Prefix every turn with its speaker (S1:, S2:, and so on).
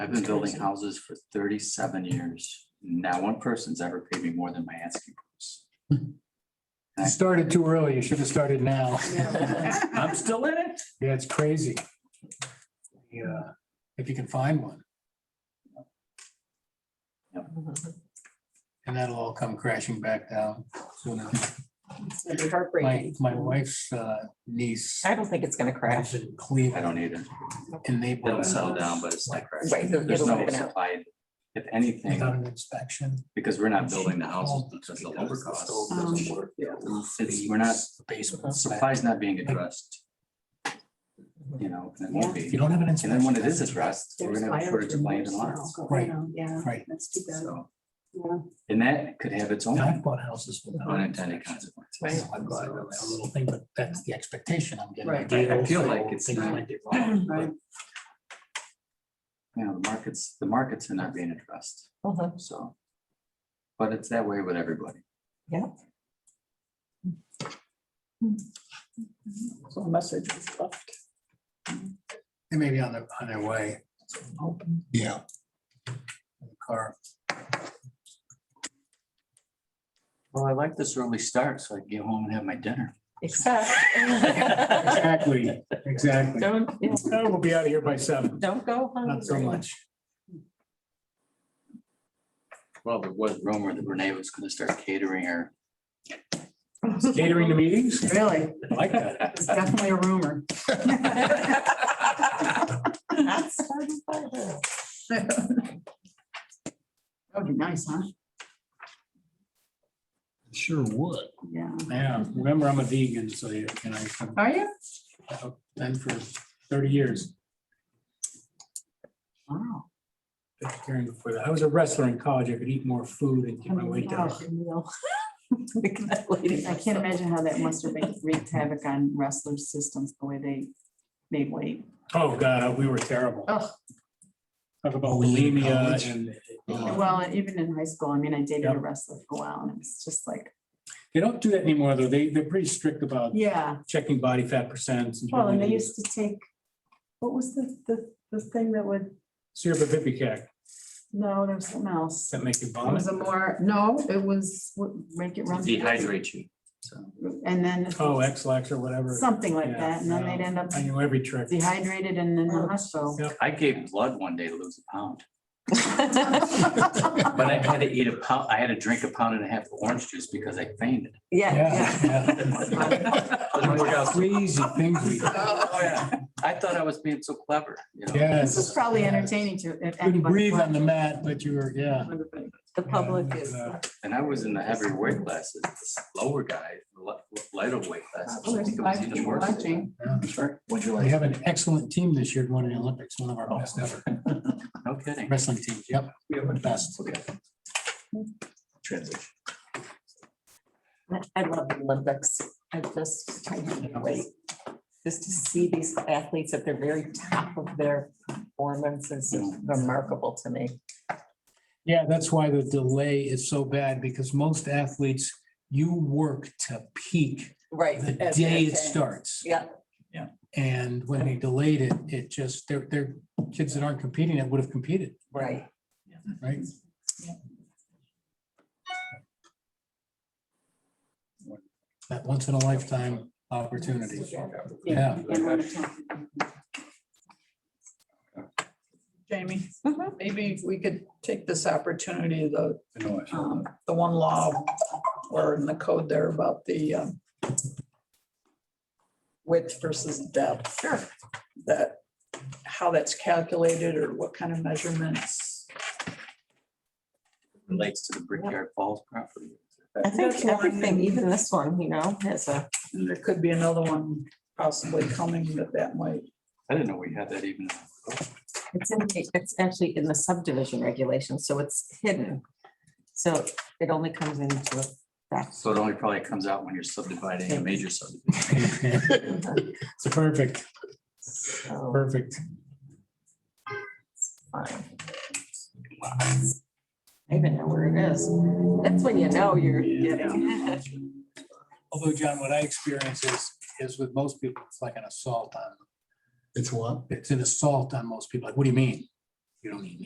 S1: I've been building houses for thirty-seven years. Not one person's ever paid me more than my asking price.
S2: You started too early. You should have started now.
S1: I'm still in it.
S2: Yeah, it's crazy. Yeah, if you can find one.
S1: Yep.
S2: And that'll all come crashing back down soon.
S3: It's gonna be
S2: My,
S3: heartbreaking.
S2: my wife's uh, niece
S3: I don't think it's gonna
S2: lives
S3: crash.
S2: in
S1: I
S2: Cleveland
S1: don't need it.
S2: and
S1: It'll
S2: they.
S1: settle down, but it's like, right,
S3: Right, it'll-
S1: there's
S3: it'll
S1: no
S3: open up.
S1: supply. If
S2: Without
S1: anything,
S2: an inspection.
S1: because we're not building the houses, it's just the lumber cost.
S4: Um,
S1: It's, we're not,
S2: Basement.
S1: supply's not being addressed. You know, and it won't
S2: If you
S1: be.
S2: don't have an
S1: And
S2: inspection.
S1: then when it is addressed, we're
S4: There's
S1: gonna have a shortage of land
S4: biofuels
S1: and
S4: now
S1: lots.
S4: going
S2: Right.
S4: on, Yeah,
S2: Right.
S4: that's too bad.
S1: So,
S4: Yeah.
S1: and that could have its own
S2: And I've bought houses without. an
S1: unintended
S2: inspection.
S1: consequences.
S3: Right.
S2: I've got a little thing, but that's the expectation I'm getting.
S3: Right.
S1: I- I feel like it's
S2: Things
S1: not-
S2: might get wrong.
S4: Right.
S1: You know, the markets, the markets are not being addressed,
S3: Mhm.
S1: so. But it's that way with everybody.
S4: So a message was left.
S2: They may be on their, on their way. Yeah. Car.
S1: Well, I like this early start, so I can get home and have my dinner.
S3: Except.
S2: Exactly, exactly.
S3: Don't, yeah,
S2: Oh, We'll be out of here by seven.
S3: don't go hungry.
S2: Not so much.
S1: Well, there was rumor that Renee was gonna start catering her.
S2: Catering to meetings?
S4: Really,
S2: I like that.
S4: it's definitely a rumor.
S3: Not started by her.
S4: That'd be nice, huh?
S2: Sure would.
S4: Yeah.
S2: Yeah, remember I'm a vegan, so you can, I,
S4: Are you?
S2: I've been for thirty years.
S4: Wow.
S2: vegetarian before that. I was a wrestler in college. I could eat more food and keep my weight down.
S4: I can't imagine how that must have wreaked havoc on wrestlers' systems, the way they made weight.
S2: Oh, God, we were terrible.
S4: Ugh.
S2: Talk about bulimia and.
S4: Well, even in high school, I mean, I dated a
S2: Yeah.
S4: wrestler for a while and it's just like,
S2: They don't do that anymore, though. They, they're pretty strict about
S4: yeah.
S2: checking body fat percents.
S4: Well, and they used to take, what was the, the, the thing that would,
S2: Serpipicac,
S4: no, there was something else.
S2: that make you
S4: It
S2: vomit.
S4: was a more, no, it was, what, make it run.
S1: Dehydrate you, so.
S4: And then
S2: Oh, X-Lax or whatever.
S4: something like
S2: Yeah,
S4: that, and then they'd
S2: no.
S4: end up
S2: I knew every trick.
S4: dehydrated and in the hospital.
S1: I gave blood one day to lose a pound, but I had to eat a pound, I had to drink a pound and a half of orange juice because I fainted.
S3: Yeah,
S2: Yeah,
S1: Doesn't work
S2: yeah.
S1: out.
S2: Crazy things we.
S1: Oh, yeah. I thought I was being so clever, you know?
S2: Yes.
S4: This is probably
S2: yes.
S4: entertaining to. if
S2: Couldn't
S4: anybody
S2: breathe on the
S4: watched.
S2: mat, but you were, yeah.
S3: the public
S2: Yeah,
S3: is,
S2: uh,
S1: And I was in the heavier weight classes, this lower guy, li- lighter weight classes.
S4: Oh,
S1: I
S4: there's
S1: think it was
S4: five
S1: even
S4: people
S1: worse.
S4: watching.
S1: Sure. Would you
S2: We have an excellent team this year, won the Olympics, one of our best ever
S1: No kidding.
S2: wrestling teams. Yep,
S1: We have
S2: the best.
S1: Okay. Transition.
S2: uh,
S3: I love the Olympics. I just can't wait. Just to see these athletes at the very top of their performance is remarkable to me.
S2: Yeah, that's why the delay is so bad because most athletes, you work to peak
S3: Right.
S2: the day it starts.
S3: Yeah.
S2: And when they delayed it, it just, they're, they're kids that aren't competing that would have competed,
S3: Right.
S2: right? That once in a lifetime opportunity. Yeah.
S4: And when it's on.
S5: Jamie,
S3: Mm-hmm.
S5: maybe if we could take this opportunity, the, um, the one law or in the code there about the um, width versus depth. Sure. That, how that's calculated or what kind of measurements.
S1: Relates to the Brickyard Falls property.
S3: I think everything, even this one, you know, has a,
S5: And there could be another one possibly coming that that might.
S1: I didn't know we had that even.
S3: it's in, it's actually in the subdivision regulation, so it's hidden. So it only comes into effect.
S1: So it only probably comes out when you're subdividing a major subdivision.
S2: It's perfect,
S3: So
S2: perfect.
S3: it's fine. I even know where it is. That's when you know you're getting.
S2: Although, John, what I experience is, is with most people, it's like an assault on. It's what? It's an assault on most people. Like, what do you mean? you know,